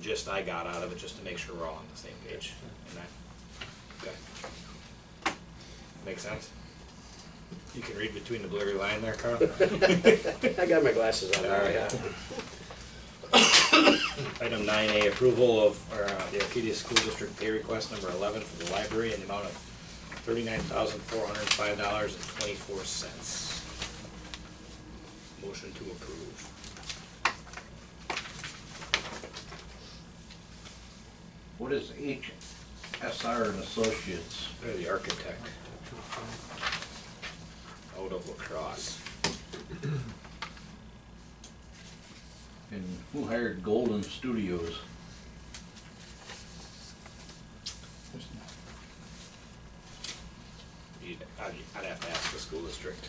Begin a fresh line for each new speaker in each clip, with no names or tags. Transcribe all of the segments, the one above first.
gist I got out of it, just to make sure we're all on the same page. And I- okay. Make sense? You can read between the blurry line there, Carl?
I got my glasses on.
All right. Item nine A, approval of, uh, the Arcadia School District pay request number eleven for the library in the amount of thirty-nine thousand, four hundred and five dollars and twenty-four cents. Motion to approve.
What is HSR and Associates?
They're the architect. Out of lacrosse.
And who hired Golden Studios?
You'd, I'd, I'd have to ask the school district.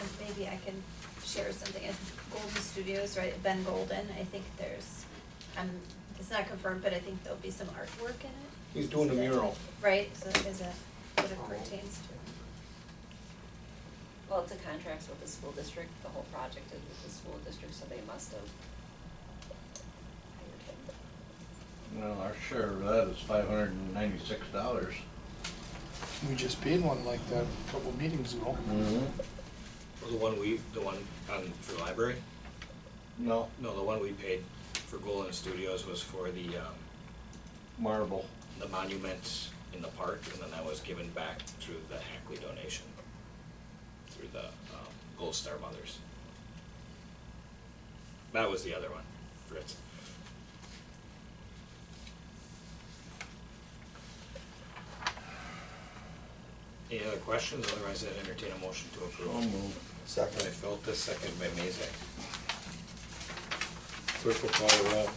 And maybe I can share something at Golden Studios, right, Ben Golden, I think there's, um, it's not confirmed, but I think there'll be some artwork in it.
He's doing
So
a
that-
mural.
Right, so is that what it pertains to?
Well, it's a contract with the school district, the whole project is with the school district, so they must have hired him.
Well, our share of that is five hundred and ninety-six dollars.
We just paid one like that a couple meetings ago.
The one we, the one on, for the library?
No,
No, the one we paid for Golden Studios was for the, um,
marble.
the monuments in the park, and then that was given back through the Hackley donation, through the um, Gold Star Mothers. That was the other one, Fritz. Any other questions? Otherwise, I'd entertain a motion to
So
approve.
moved.
Second by Feltus, second by Mazak. Clerk will call the roll.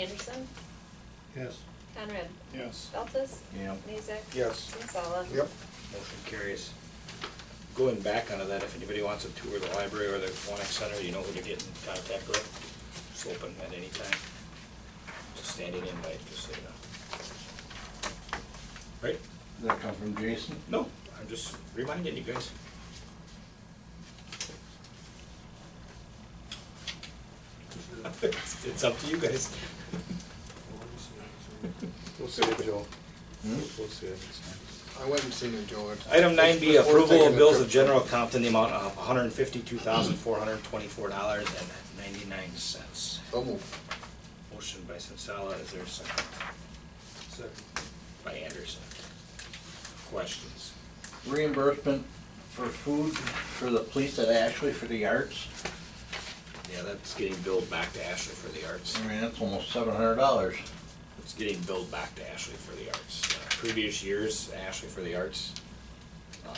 Anderson,
Yes.
Conrad,
Yes.
Feltes,
Yeah.
Mazak.
Yes.
Sensala.
Yep.
Motion carries. Going back onto that, if anybody wants to tour the library or the Quonic Center, you know who to get in contact with. It's open at any time. Just standing invite, just so you know. Right?
Did that come from Jason?
No, I'm just reminding you guys. It's it's up to you guys.
We'll see it, Joel.
Hmm?
We'll see it.
I went and seen it, Joe.
Item nine B,
Before
approval
taking
of
the
bills
trip.
of general account in the amount of one hundred and fifty-two thousand, four hundred and twenty-four dollars and ninety-nine cents.
So moved.
Motion by Sensala, is there a second?
Second.
By Anderson. Questions?
Reimbursement for food for the police at Ashley for the arts?
Yeah, that's getting billed back to Ashley for the arts.
I mean, that's almost seven hundred dollars.
It's getting billed back to Ashley for the arts. Uh, Previous years, Ashley for the arts, um,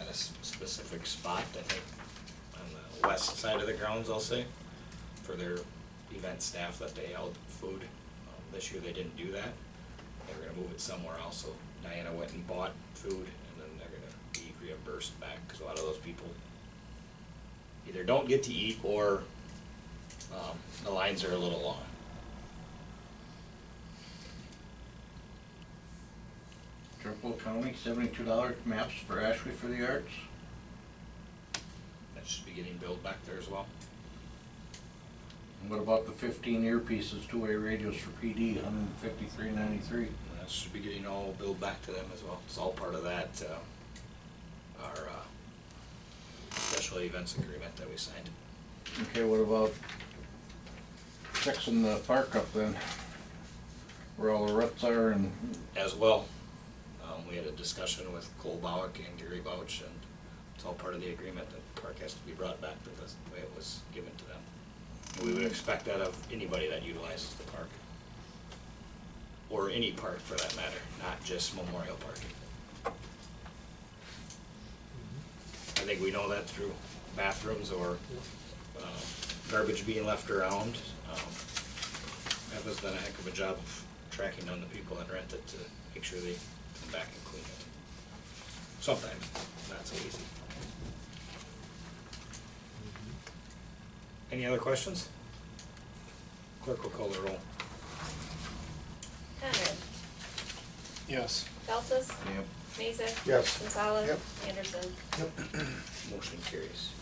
at a s- specific spot, I think, on the west side of the grounds, I'll say, for their event staff that they held food. Um, This year, they didn't do that. They were gonna move it somewhere else, so Diana went and bought food, and then they're gonna be reimbursed back, because a lot of those people either don't get to eat, or, um, the lines are a little long.
Triple County, seventy-two dollars maps for Ashley for the arts?
That should be getting billed back there as well.
And What about the fifteen earpieces, two-way radios for PD, hundred and fifty-three ninety-three?
And That should be getting all billed back to them as well. It's all part of that, uh, our, uh, special events agreement that we signed.
Okay, what about fixing the park up then? Where all the ruts are and,
As well, um, we had a discussion with Cole Bowick and Gary Bouch, and it's all part of the agreement that the park has to be brought back to the way it was given to them. And we would expect that of anybody that utilizes the park. Or any park for that matter, not just Memorial Park. I think we know that through bathrooms or uh, garbage being left around. Um, Eva's done a heck of a job of tracking down the people that rent it to make sure they come back and clean it. Sometimes, not so easy. Any other questions? Clerk will call the roll.
Conrad,
Yes.
Feltes,
yep,
Mazak.
Yes.
Sensala.
Yep.
Anderson.
Motion carries.